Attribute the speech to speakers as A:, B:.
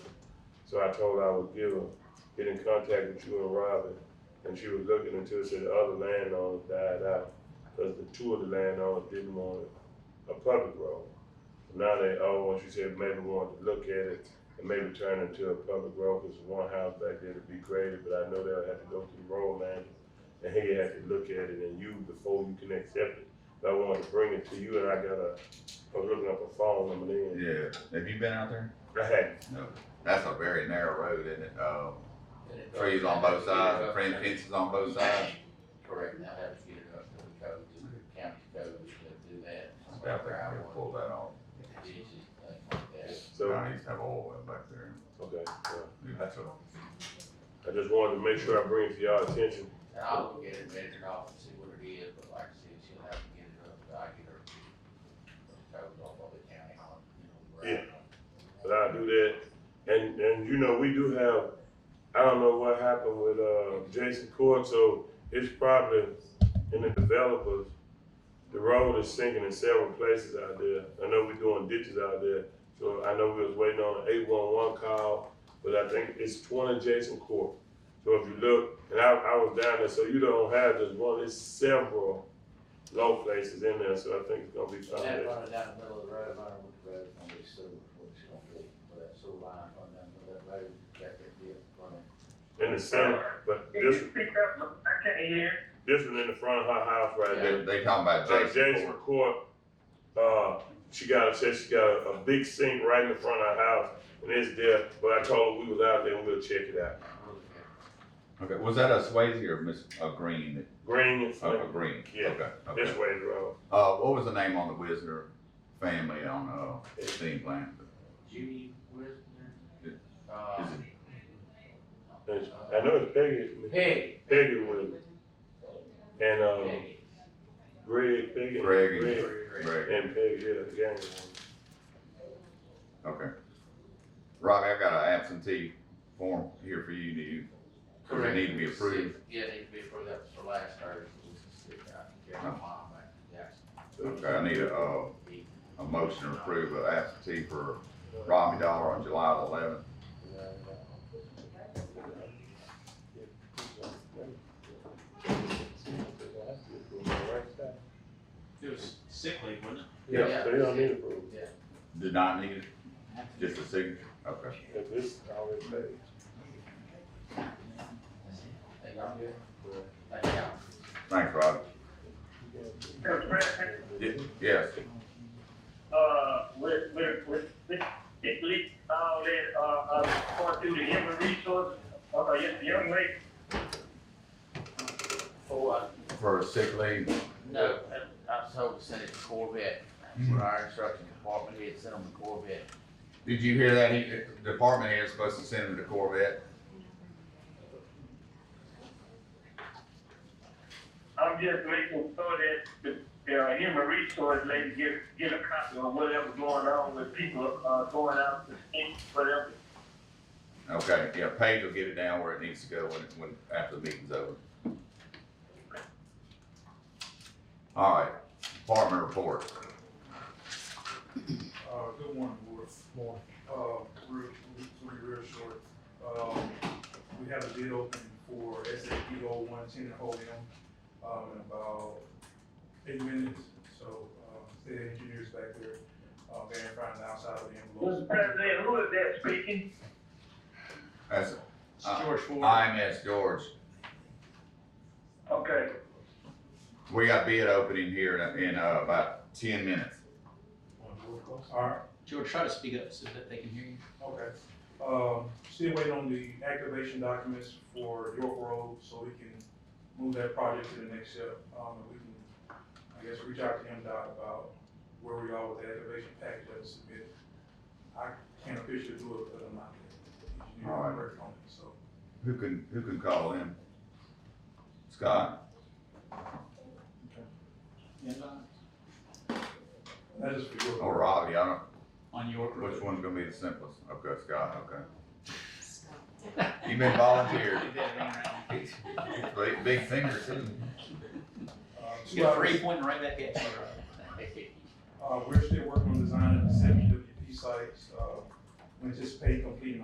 A: So I told her I would give her, get in contact with you and Robin. And she was looking until she said the other landowners died out, cause the two of the landowners didn't want a public road. Now they all, she said, maybe wanted to look at it and maybe turn it into a public road, cause one house back there to be graded, but I know they'll have to go through the road man. And he had to look at it and you, before you can accept it, But I wanted to bring it to you and I got a, I was looking up a phone number then.
B: Yeah, have you been out there?
A: I had,
B: No. That's a very narrow road, isn't it? Um, trees on both sides, frame fences on both sides.
C: Correct, and I'll have to get it up to the code, to the county code to do that.
B: Yeah, I think I would pull that off.
C: It's easy, thing like that.
A: so,
B: I used to have oil well back there.
A: okay, yeah.
B: That's
A: I
B: a-
A: just wanted to make sure I bring it to y'all attention.
C: And I will get it measured off and see what it is, but like I said, she'll have to get it up, but I get her. the Code off of the county on, you know. where I-
A: But I do that, and, and you know, we do have, I don't know what happened with, uh, Jason Court, so it's probably in the developers, the road is sinking in several places out there, I know we're doing ditches out there, so I know we was waiting on an eight-one-one call, but I think it's twenty Jason Court. So if you look, and I, I was down there, so you don't have just one, it's several low places in there, so I think it's gonna be
C: So that
A: foundation.
C: running down the middle of the road, I don't know what the road's gonna be sewer, what it's gonna be, but that sewer line running down the middle of that road, that could be a problem.
A: in the center, but
D: Can you
A: this,
D: speak up? I can't hear.
A: this one in the front of her house right there.
B: They, they talking about
A: Uh, Jason
B: Jason Ford.
A: Court, uh, she got, said she got a, a big sink right in the front of her house, and it's there, but I told her we was out there and we'll check it out.
C: We'll look at it.
B: Okay, was that a Swayze or Miss, a Green,
A: Green and
B: a
A: Flint,
B: Green?
A: Yeah.
B: Okay,
A: this
B: okay.
A: way the road,
B: Uh, what was the name on the Wisner family on, uh, steam plant?
C: Judy Wisner.
B: Is
C: Uh,
B: Is
A: It's- I know it's Peggy,
C: Peggy,
A: Peggy with it. And, uh,
C: Peggy.
A: Greg, Peggy.
B: it Greg and,
A: Greg,
B: Greg,
A: And Peggy, yeah, the gang.
B: okay. Robbie, I got an absentee form here for you, do you, does it need to be approved?
C: Yeah, it need to be approved, that was for last Thursday. We can sit down and get my mom back to Jackson.
B: Okay, I need a, uh, a motion to approve of absentee for Robbie Dollar on July the eleventh.
E: It was sick leave, wasn't it?
A: Yeah, they don't need approval,
B: Did not need it, just a signature, okay.
A: if this already paid.
C: Thank y'all. Thank y'all.
B: Thanks, Robbie.
D: Mr. President,
B: Ye- Yes,
D: uh, with, with, with, with, at least, all that, uh, uh, going through the human resource, uh, yes, young lady.
C: For, uh,
B: for sick leave,
C: no, uh, I was told to send it to Corvette, for our instruction department, he had sent them to Corvette.
B: Did you hear that? He, the department head is supposed to send him to Corvette.
D: I'm just making sure that the, the uh, human resource lady get, get a copy of whatever's going on with people, uh, going out to speak, whatever.
B: Okay, yeah, Paige will get it down where it needs to go when, it- when, after the meeting's over. All right, department report.
F: Uh, good morning, board. Morning. Uh, we're, we're we're real short. Um, we have a bid open for SAP O one ten at Holium, um, in about eight minutes. So, uh, the engineer's back there, uh, verifying the outside of the envelope.
D: Mr. President, who is that speaking?
B: That's
F: It's
B: Uh,
F: George Ford.
B: IMS George.
D: Okay.
B: We got bid opening here in, in, uh, about ten minutes.
F: All right,
E: George, try to speak up so that they can hear you.
F: Okay. Um, still waiting on the activation documents for York Road, so we can move that project to the next step. Um, and we can, I guess, reach out to MDOT about where we are with the activation package that was submitted. I can't officially do it, but I'm not the engineer, I'm working on it, so.
B: Who can, who can call in? Scott,
E: And, uh,
F: That is for York.
B: or Robbie, I
E: on York
B: don't,
E: Road.
B: which one's gonna be the simplest? Okay, Scott, okay. You've been volunteered.
E: You better run around.
B: Big, big finger too.
F: Uh,
E: You
F: two
E: got
F: hours,
E: three pointing right back at you.
F: uh, we're still working on designing the seventy WP sites, uh, we anticipate completing